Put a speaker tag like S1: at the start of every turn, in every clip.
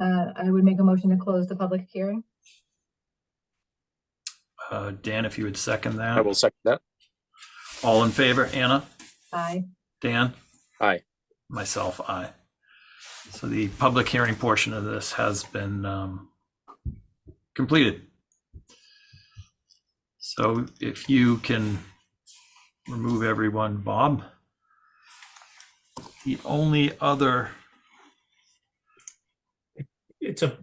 S1: Uh, I would make a motion to close the public hearing.
S2: Uh, Dan, if you would second
S3: I
S2: that.
S3: will second that.
S2: All in favor, Anna?
S1: Aye.
S2: Dan?
S3: Aye.
S2: Myself, aye. So the public hearing portion of this has been um, completed. So if you can remove everyone, Bob. The only other,
S4: it's a,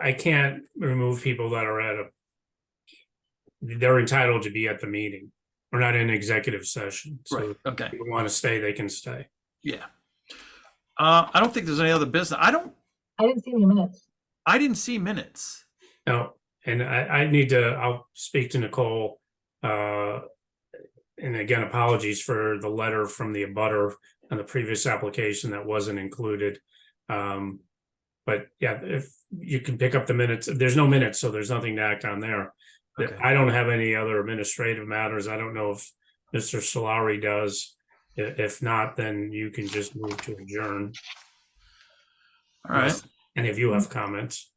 S4: I can't remove people that are at a. They're entitled to be at the meeting. We're not in executive session, so
S2: right,
S4: if
S2: okay,
S4: people want to stay, they can stay.
S2: yeah. Uh, I don't think there's any other business. I don't,
S1: I didn't see any minutes.
S2: I didn't see minutes.
S4: No, and I, I need to, I'll speak to Nicole. Uh, and again, apologies for the letter from the abutter on the previous application that wasn't included. Um, but yeah, if you can pick up the minutes, there's no minutes, so there's nothing to act on there. But
S2: Okay.
S4: I don't have any other administrative matters. I don't know if Mr. Solari does. I- If not, then you can just move to adjourn.
S2: All right.
S4: And if you have comments.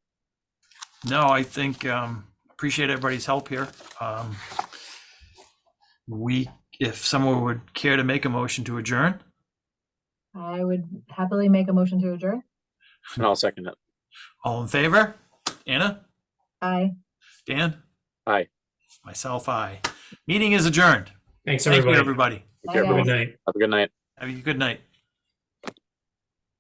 S2: No, I think, um, appreciate everybody's help here. Um, we, if someone would care to make a motion to adjourn,
S1: I would happily make a motion to adjourn.
S3: And I'll second that.
S2: all in favor? Anna,
S1: Aye.
S2: Dan?
S3: Aye.
S2: Myself, aye. Meeting is adjourned.
S4: Thanks,
S2: Thank you,
S4: everybody.
S2: everybody.
S3: Okay,
S1: Aye, aye.
S3: everyone.
S4: Good night.
S3: Have a good night.
S2: Have a good night.